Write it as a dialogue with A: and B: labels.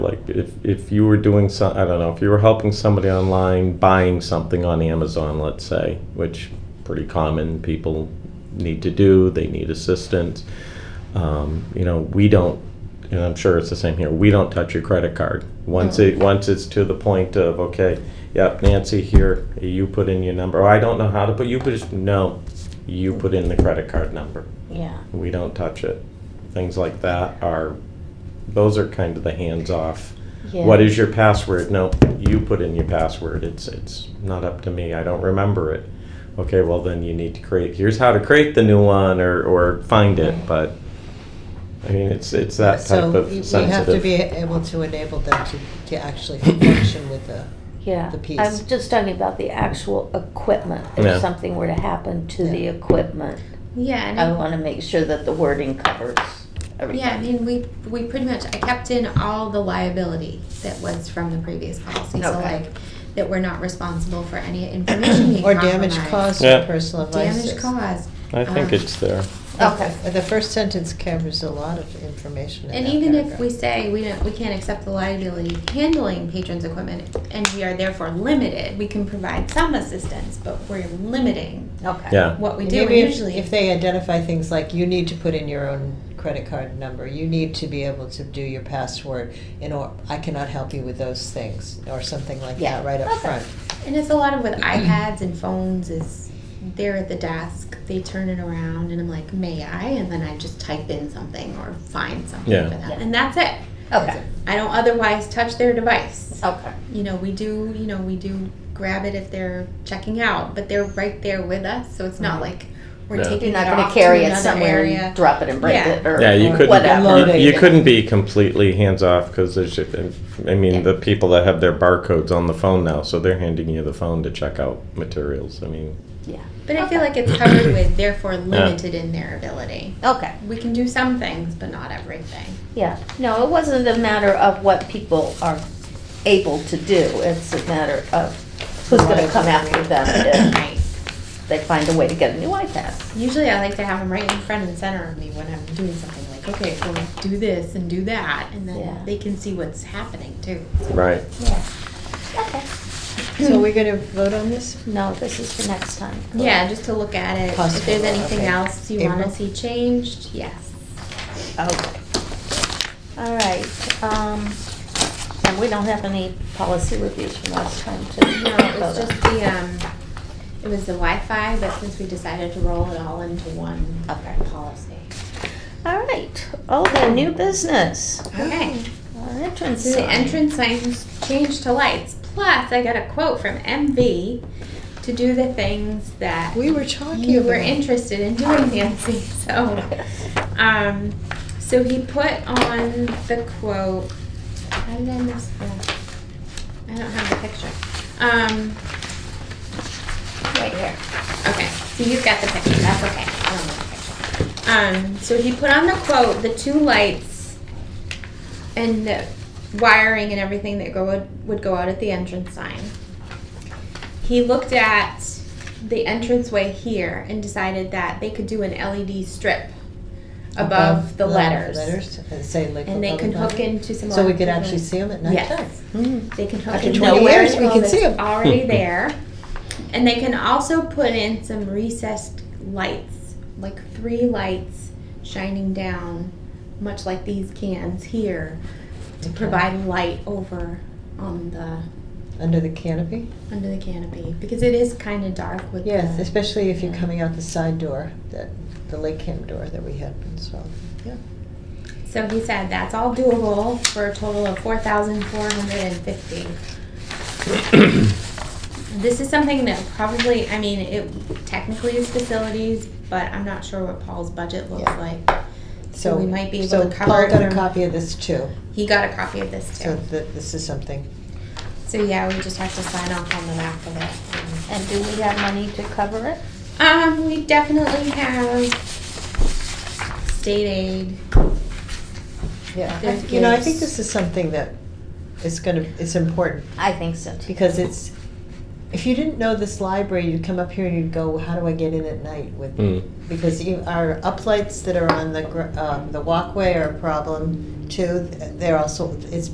A: Like if, if you were doing some, I don't know, if you were helping somebody online buying something on Amazon, let's say, which pretty common people need to do, they need assistance. Um, you know, we don't, and I'm sure it's the same here, we don't touch your credit card. Once it, once it's to the point of, okay, yep, Nancy here, you put in your number, or I don't know how to put, you put, no, you put in the credit card number.
B: Yeah.
A: we don't touch it. Things like that are, those are kind of the hands off.
B: Yeah.
A: What is your password? No, you put in your password. It's, it's not up to me. I don't remember it. Okay, well then you need to create, here's how to create the new one or, or find it, but, I mean, it's, it's that type of sensitive.
C: So we- we have to be able to enable them to, to actually function with the,
B: Yeah.
C: The piece.
B: I'm just talking about the actual equipment. If
A: Yeah.
B: something were to happen to the
C: Yeah.
B: equipment,
D: Yeah, and
B: I
D: I,
B: want to make sure that the wording covers everything.
D: yeah, I mean, we we pretty much I kept in all the liability that was from the previous policy. So
B: Okay.
D: like that we're not responsible for any information being
C: or damage
D: compromised.
C: caused to
A: Yeah.
C: personal devices.
D: Damage caused.
A: I think
D: um,
A: it's there.
B: Okay.
C: Uh, The first sentence covers a lot of information in
D: And
C: that
D: even if
C: paragraph.
D: we say we don't, we can't accept the liability of handling patrons' equipment, and we are therefore limited, we can provide some assistance, but we're limiting
B: Okay.
A: Yeah.
D: what we
C: And
D: do. And
C: maybe if-
D: usually,
C: If they identify things like, you need to put in your own credit card number, you need to be able to do your password, and or, I cannot help you with those things, or something like
B: Yeah.
C: that, right up
D: Okay.
C: front.
D: And it's a lot of with iPads and phones is they're at the desk, they turn it around, and I'm like, may I? And then I just type in something or find something
A: Yeah.
D: for them,
B: Yeah.
D: and that's it.
B: Okay.
D: I don't otherwise touch their device.
B: Okay.
D: You know, we do. You know, we do grab it if they're checking out, but they're right there with us, so it's not like we're
A: Yeah.
D: taking
B: Mm-hmm. You're not
D: it
B: going
D: off
B: to carry
D: to
B: it
D: another
B: somewhere
D: area.
B: and drop it and break
D: Yeah.
B: it or
A: Yeah, you
B: whatever.
C: Unload
A: couldn't,
C: it.
A: you- you couldn't be completely hands-off, because there's, I mean, the people that have their barcodes on the phone now, so they're handing you the phone to check out materials, I mean.
B: Yeah.
D: But I feel like it's covered with therefore limited in their ability.
B: Okay.
D: We can do some things, but not everything.
B: Yeah. No, it wasn't a matter of what people are able to do. It's a matter of who's going to come after them
D: Right.
B: if they find a way to get a new iPad.
D: Usually, I like to have them right in front and center of me when I'm doing something. Like, okay, well, do this and do that, and then
B: Yeah.
D: they can see what's happening too.
A: Right.
B: Yeah. Okay.
C: So we're gonna vote on this?
B: No, this is for next time.
D: Yeah, just to look at it. if
C: Possible,
D: there's anything
C: okay.
D: else you want to
C: April?
D: see changed, yes.
B: Okay. All right, um, and we don't have any policy reviews from last time to.
D: No, it was just the um, it was the Wi-Fi, but since we decided to roll it all into one
B: Okay.
D: policy.
B: All right, oh, the new business,
D: Okay.
C: Oh.
B: Our entrance.
D: So the
B: sign.
D: entrance signs changed to lights. Plus, I got a quote from MV to do the things that
C: We were talking
D: you were
C: about-
D: interested in doing, Nancy. So, um, so he put on the quote. How did I miss that? I don't have the picture. Um,
B: Right here.
D: Okay, so you've got the picture, that's okay. I don't want the picture. Um, so he put on the quote, the two lights and the wiring and everything that go, would- would go out at the entrance sign. He looked at the entranceway here and decided that they could do an LED strip above the letters.
C: Letters, and say like.
D: And they
C: above
D: can
C: the
D: hook
C: bottom.
D: into some.
C: So we could
D: electrical-
C: actually see them at night time.
D: Yes.
C: Hmm.
D: They can hook
C: After
D: into
C: 20
D: the
C: years, we
D: electrical
C: can see 'em.
D: that's already there. And they can also put in some recessed lights, like three lights shining down, much like these cans here, to
C: Okay.
D: provide light over on the
C: Under the canopy?
D: under the canopy because it is kind of dark with
C: Yes,
D: the,
C: especially if you're
D: yeah.
C: coming out the side door, that, the lake cam door that we had, so, yeah.
D: So he said that's all doable for a total of four thousand four hundred and fifty. This is something that probably, I mean, it technically is facilities, but I'm not sure what Paul's budget looks
C: Yeah.
D: like. So we might be able
C: so
D: to cover it
C: Paul got a
D: from-
C: copy of this too,
D: He got a copy of this
C: so
D: too.
C: that this is something.
D: So yeah, we just have to sign off on the back of it.
B: And do we have money to cover it?
D: Um, we definitely have state aid.
C: Yeah, I-
D: There's
C: you know, I think
D: gifts.
C: this is something that is gonna, it's important,
B: I think so too.
C: because it's, if you didn't know this library, you'd come up here and you'd go, how do I get in at night with
A: Mm.
C: because you, our uh, uplights that are on the, gr- um, the walkway are a problem too. They're also, it's